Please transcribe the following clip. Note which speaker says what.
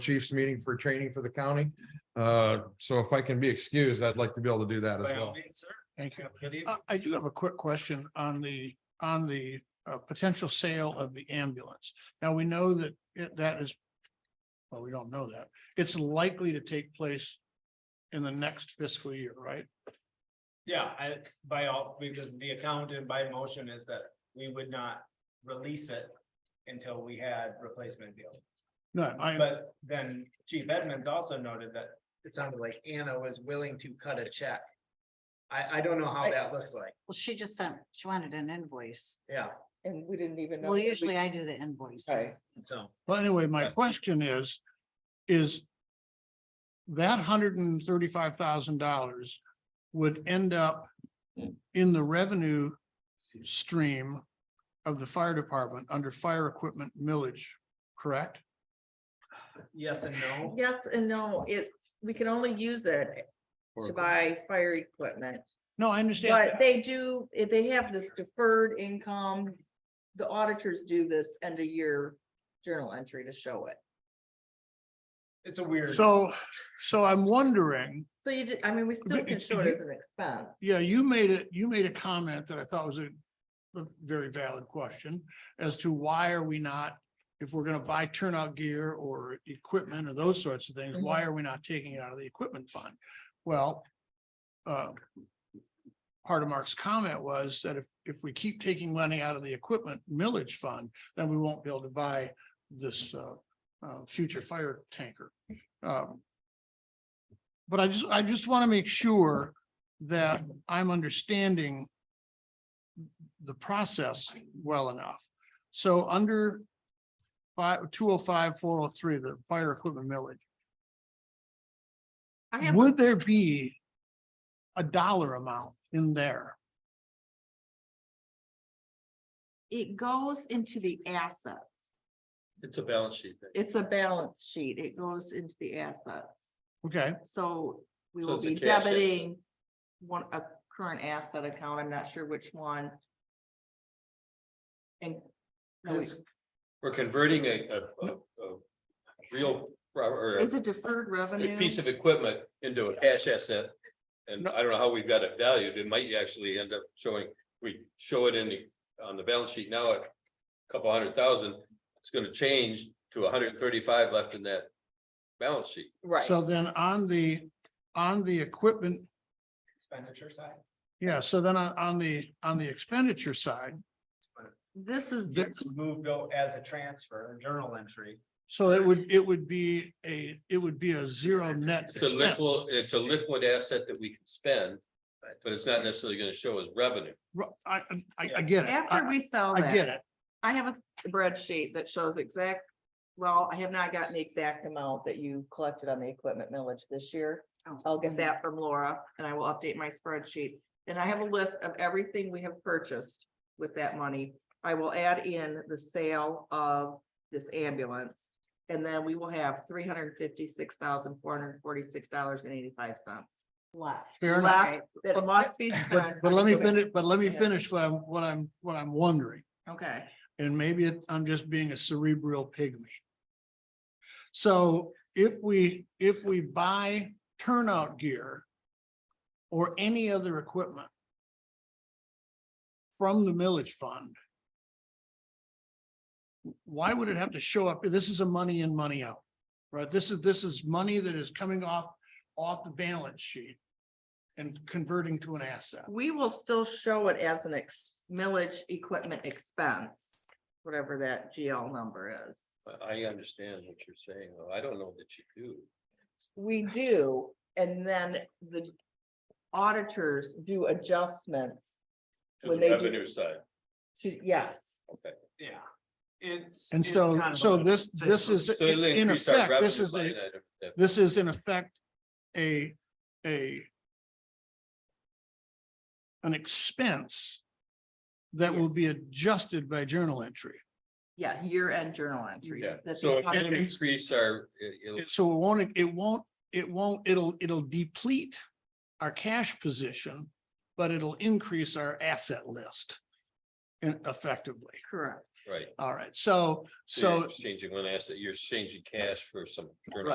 Speaker 1: chief's meeting for training for the county. Uh, so if I can be excused, I'd like to be able to do that as
Speaker 2: By all
Speaker 1: well.
Speaker 2: means, sir.
Speaker 3: Thank you.
Speaker 2: Have a good evening.
Speaker 3: Uh, I do have a quick question on the, on the uh, potential sale of the ambulance. Now, we know that it- that is, well, we don't know that. It's likely to take place in the next fiscal year, right?
Speaker 2: Yeah, I, by all, because the accountant by motion is that we would not release it until we had replacement deal.
Speaker 3: No, I,
Speaker 2: But then Chief Edmonds also noted that it sounded like Anna was willing to cut a check. I, I don't know how that looks like,
Speaker 4: Well, she just sent, she wanted an invoice.
Speaker 2: yeah,
Speaker 5: And we didn't even know.
Speaker 4: Well,
Speaker 5: that we-
Speaker 4: usually I do the invoices.
Speaker 5: Right.
Speaker 2: so.
Speaker 3: well, anyway, my question is, is that hundred and thirty-five thousand dollars would end up in the revenue stream of the fire department under fire equipment millage, correct?
Speaker 2: Yes and no,
Speaker 5: Yes and no, it's, we can only use it to buy fire equipment,
Speaker 3: No, I understand.
Speaker 5: but they do, if they have this deferred income. The auditors do this end of year journal entry to show it.
Speaker 2: it's a weird.
Speaker 3: So, so I'm wondering,
Speaker 5: So you, did- I mean, we still can show it as an expense.
Speaker 3: yeah, you made it, you made a comment that I thought was a a very valid question as to why are we not, if we're gonna buy turnout gear or equipment or those sorts of things, why are we not taking it out of the equipment fund? Well, uh, part of Mark's comment was that if, if we keep taking money out of the equipment millage fund, then we won't be able to buy this uh, uh, future fire tanker. Um, But I just, I just want to make sure that I'm understanding the process well enough. So under five, two oh five, four oh three, the fire equipment millage,
Speaker 5: I have,
Speaker 3: would there be a dollar amount in there?
Speaker 5: it goes into the assets.
Speaker 2: It's a balance sheet thing.
Speaker 5: It's a balance sheet. It goes into the assets.
Speaker 3: Okay,
Speaker 5: So we
Speaker 2: So
Speaker 5: will
Speaker 2: it's a
Speaker 5: be
Speaker 2: cash asset.
Speaker 5: debiting one, a current asset account, I'm not sure which one. And. no, wait,
Speaker 6: We're converting a, a, a, a real, or a
Speaker 5: Is it deferred revenue?
Speaker 6: a piece of equipment into a cash asset. And I don't know how we've got it valued. It might actually end up showing, we show it in the, on the balance sheet now at a couple hundred thousand. It's gonna change to hundred and thirty-five left in that balance sheet.
Speaker 5: Right,
Speaker 3: so then on the, on the equipment,
Speaker 2: Expenditure side.
Speaker 3: yeah, so then on, on the, on the expenditure side,
Speaker 5: this is,
Speaker 3: Th-
Speaker 2: It's moved out as a transfer, a journal entry.
Speaker 3: so it would, it would be a, it would be a zero net
Speaker 6: It's a
Speaker 3: expense.
Speaker 6: liquid, it's a liquid asset that we can spend, but it's not necessarily gonna show as revenue.
Speaker 3: Ru- I, I, I get it.
Speaker 5: after
Speaker 3: I,
Speaker 5: we sell
Speaker 3: I get
Speaker 5: that,
Speaker 3: it.
Speaker 5: I have a spreadsheet that shows exact. Well, I have not gotten the exact amount that you collected on the equipment millage this year.
Speaker 4: Oh.
Speaker 5: I'll
Speaker 3: Mm-hmm.
Speaker 5: get that from Laura and I will update my spreadsheet. And I have a list of everything we have purchased with that money. I will add in the sale of this ambulance. And then we will have three hundred and fifty-six thousand, four hundred and forty-six dollars and eighty-five cents.
Speaker 4: Left.
Speaker 3: Fair enough.
Speaker 5: Left that must be spent.
Speaker 3: But let me
Speaker 5: on equipment.
Speaker 3: finish, but let me
Speaker 5: Yeah.
Speaker 3: finish what I'm, what I'm, what I'm wondering,
Speaker 5: Okay,
Speaker 3: and maybe it- I'm just being a cerebral pygmy. So if we, if we buy turnout gear or any other equipment from the millage fund, why would it have to show up? This is a money in, money out, right? This is, this is money that is coming off, off the balance sheet and converting to an asset.
Speaker 5: we will still show it as an ex, millage equipment expense, whatever that GL number is.
Speaker 6: I- I understand what you're saying. though. I don't know that you do.
Speaker 5: We do, and then the auditors do adjustments
Speaker 6: to
Speaker 5: When
Speaker 6: the
Speaker 5: they do-
Speaker 6: Revenue side.
Speaker 5: to, yes.
Speaker 2: Yeah, it's.
Speaker 3: And
Speaker 2: it's
Speaker 3: so,
Speaker 2: kind of
Speaker 3: so
Speaker 2: a-
Speaker 3: this, this is,
Speaker 6: So it'll
Speaker 3: in
Speaker 6: increase our
Speaker 3: effect, this
Speaker 6: revenue
Speaker 3: is, a
Speaker 6: line item that-
Speaker 3: this is in effect, a, a an expense that will be adjusted by journal entry.
Speaker 5: Yeah, year-end journal entry.
Speaker 6: Yeah,
Speaker 5: that
Speaker 6: so
Speaker 5: they
Speaker 6: if
Speaker 5: have
Speaker 6: it
Speaker 5: to-
Speaker 6: increase our, it- it'll,
Speaker 3: It- So it won't, it won't, it won't, it'll, it'll deplete our cash position, but it'll increase our asset list in- effectively.
Speaker 5: Correct.
Speaker 6: right.
Speaker 3: All right, so, so
Speaker 6: Changing one asset, you're changing cash for some.